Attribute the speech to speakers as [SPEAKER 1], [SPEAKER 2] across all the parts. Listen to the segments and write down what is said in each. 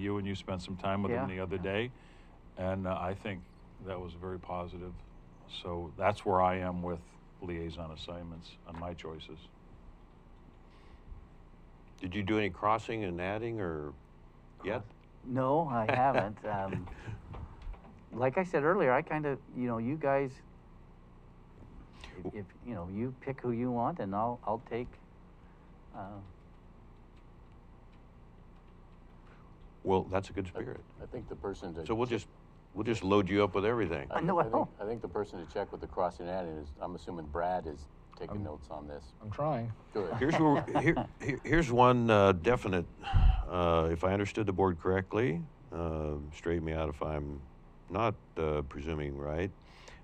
[SPEAKER 1] you, and you spent some time with him
[SPEAKER 2] Yeah.
[SPEAKER 1] the other day. And uh, I think that was very positive. So that's where I am with liaison assignments on my choices.
[SPEAKER 3] Did you do any crossing and adding or yet?
[SPEAKER 2] No, I haven't. Um, like I said earlier, I kind of, you know, you guys, if, you know, you pick who you want and I'll, I'll take, uh,
[SPEAKER 3] Well, that's a good spirit.
[SPEAKER 4] I think the person to.
[SPEAKER 3] So we'll just, we'll just load you up with everything.
[SPEAKER 2] I know, I
[SPEAKER 4] think-
[SPEAKER 2] know.
[SPEAKER 4] I think the person to check with the crossing ad is, I'm assuming Brad is taking notes on this.
[SPEAKER 5] I'm trying.
[SPEAKER 4] Good.
[SPEAKER 3] Here's where, Um, here, here- here's one uh, definite, uh, if I understood the board correctly, uh, straighten me out if I'm not uh, presuming right.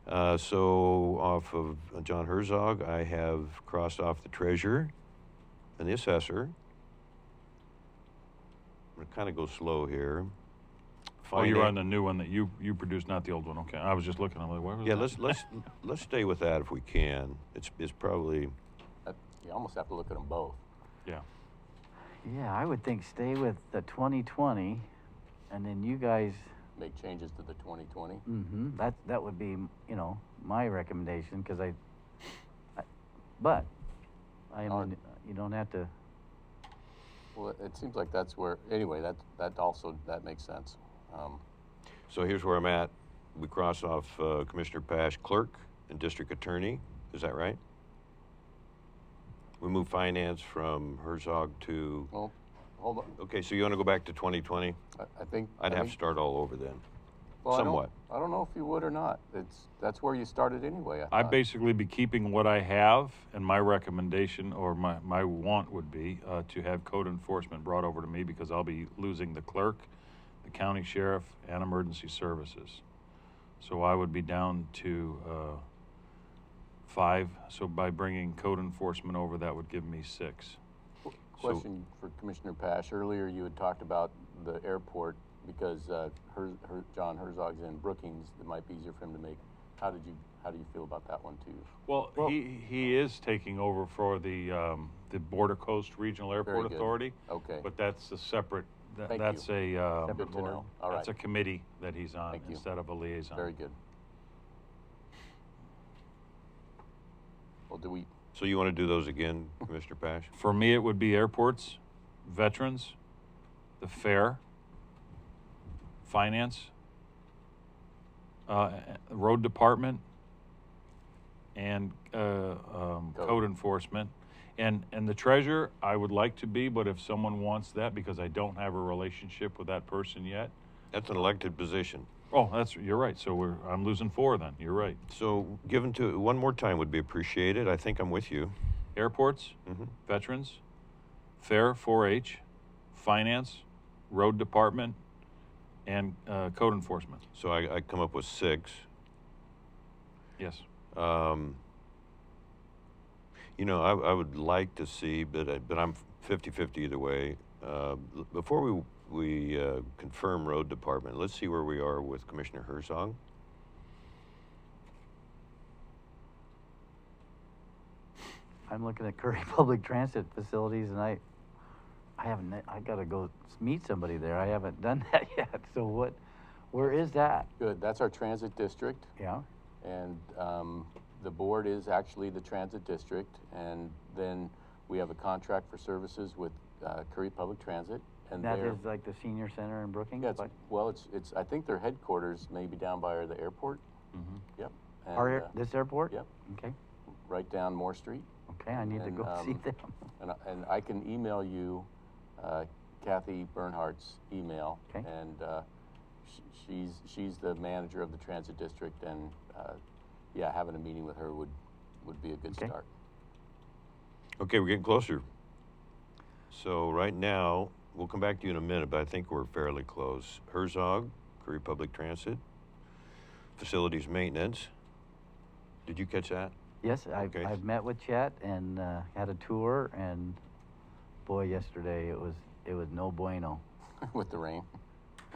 [SPEAKER 3] Uh, so off of John Herzog, I have crossed off the treasurer and the assessor. I'm gonna kind of go slow here.
[SPEAKER 1] Oh, you're
[SPEAKER 3] Finan-
[SPEAKER 1] on the new one that you, you produced, not the old one. Okay, I was just looking, I'm like, where was
[SPEAKER 3] Yeah,
[SPEAKER 1] that?
[SPEAKER 3] let's, let's, let's stay with that if we can. It's, it's probably,
[SPEAKER 4] Uh, You almost have to look at them both.
[SPEAKER 1] Yeah.
[SPEAKER 2] yeah, I would think stay with the 2020 and then you guys,
[SPEAKER 4] Make changes to the 2020.
[SPEAKER 2] hmm that, that would be, you know, my recommendation because I, I, but I am,
[SPEAKER 4] On-
[SPEAKER 2] you don't have to,
[SPEAKER 4] Well, it- it seems like that's where, anyway, that, that also, that makes sense. Um,
[SPEAKER 3] So here's where I'm at. We cross off uh, Commissioner Pash, clerk, and district attorney. Is that right? We move finance from Herzog to.
[SPEAKER 4] Well, hold on,
[SPEAKER 3] Okay, so you want to go back to 2020?
[SPEAKER 4] I- I think.
[SPEAKER 3] I'd
[SPEAKER 4] I
[SPEAKER 3] have to
[SPEAKER 4] think-
[SPEAKER 3] start all over then.
[SPEAKER 4] well, I don't-
[SPEAKER 3] somewhat.
[SPEAKER 4] I don't know if you would or not. It's, that's where you started anyway.
[SPEAKER 1] i
[SPEAKER 4] thought.
[SPEAKER 1] basically be keeping what I have, and my recommendation or my, my want would be uh, to have code enforcement brought over to me because I'll be losing the clerk, the county sheriff, and emergency services. So I would be down to uh, five. So by bringing code enforcement over, that would give me six.
[SPEAKER 3] So-
[SPEAKER 4] Question for Commissioner Pash. Earlier, you had talked about the airport because uh, Her- Her- John Herzog's in Brookings. It might be easier for him to make. How did you, how do you feel about that one too?
[SPEAKER 1] Well, he, he is taking over for the, um, the Border Coast Regional Airport
[SPEAKER 4] good.
[SPEAKER 1] Authority.
[SPEAKER 4] Okay.
[SPEAKER 1] But that's a separate, that-
[SPEAKER 4] Thank
[SPEAKER 1] that's a, uh,
[SPEAKER 4] Good to know. All
[SPEAKER 1] that's a
[SPEAKER 4] right.
[SPEAKER 1] committee that he's on
[SPEAKER 4] Thank you.
[SPEAKER 1] instead of a
[SPEAKER 2] uh,
[SPEAKER 1] liaison.
[SPEAKER 4] Very good. Well, do we,
[SPEAKER 3] So you want to do those again, Commissioner Pash?
[SPEAKER 1] For me, it would be airports, veterans, the fair, finance, uh, road department, and uh, um,
[SPEAKER 4] Code.
[SPEAKER 1] code enforcement. And, and the treasurer, I would like to be, but if someone wants that, because I don't have a relationship with that person yet.
[SPEAKER 3] That's an elected position.
[SPEAKER 1] Oh, that's, you're right. So we're, I'm losing four then. You're right.
[SPEAKER 3] So given to, one more time would be appreciated. I think I'm with you.
[SPEAKER 1] Airports,
[SPEAKER 3] hmm
[SPEAKER 1] veterans, fair 4-H, finance, road department, and uh, code enforcement.
[SPEAKER 3] So I, I come up with six.
[SPEAKER 1] Yes.
[SPEAKER 3] Um, you know, I, I would like to see, but, I, but I'm 50 50 either way. Uh, l- before we, we uh, confirm road department, let's see where we are with Commissioner Herzog.
[SPEAKER 2] I'm looking at Curry Public Transit Facilities, and I, I haven't, I gotta go s- meet somebody there, I haven't done that yet, so what, where is that?
[SPEAKER 4] good, that's our transit district.
[SPEAKER 2] Yeah,
[SPEAKER 4] And um, the board is actually the transit district. And then we have a contract for services with uh, Curry Public Transit. And
[SPEAKER 2] that
[SPEAKER 4] they're-
[SPEAKER 2] is like the senior center in Brookings,
[SPEAKER 4] Yeah, it's,
[SPEAKER 2] but
[SPEAKER 4] well, it's, it's, I think their headquarters may be down by the airport.
[SPEAKER 1] Mhm.
[SPEAKER 4] Yep. And,
[SPEAKER 2] Mm-hmm. our,
[SPEAKER 4] uh,
[SPEAKER 2] air- this airport?
[SPEAKER 4] yep.
[SPEAKER 2] Okay,
[SPEAKER 4] Right down Moore Street.
[SPEAKER 2] okay, I need to
[SPEAKER 4] And,
[SPEAKER 2] go see
[SPEAKER 4] um,
[SPEAKER 2] them.
[SPEAKER 4] And, I- and I can email you uh, Kathy Bernhardt's email.
[SPEAKER 2] 'Kay.
[SPEAKER 4] And uh, sh- she's, she's the manager of the transit district. And uh, yeah, having a meeting with her would, would be a good
[SPEAKER 2] 'Kay.
[SPEAKER 4] start.
[SPEAKER 3] Okay, we're getting closer. So right now, we'll come back to you in a minute, but I think we're fairly close. Herzog, Curry Public Transit, facilities maintenance. Did you catch that?
[SPEAKER 2] Yes, I've,
[SPEAKER 3] okay.
[SPEAKER 2] I've met with Chet and, uh, had a tour, and boy, yesterday it was, it was no bueno.
[SPEAKER 4] with the rain.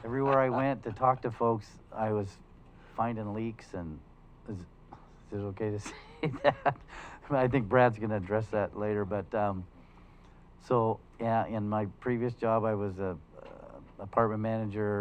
[SPEAKER 2] Everywhere I went to talk to folks, I was finding leaks, and is, is it okay to say that? I think Brad's going to address that later, but um, so yeah. In my previous job, I was a, uh, apartment manager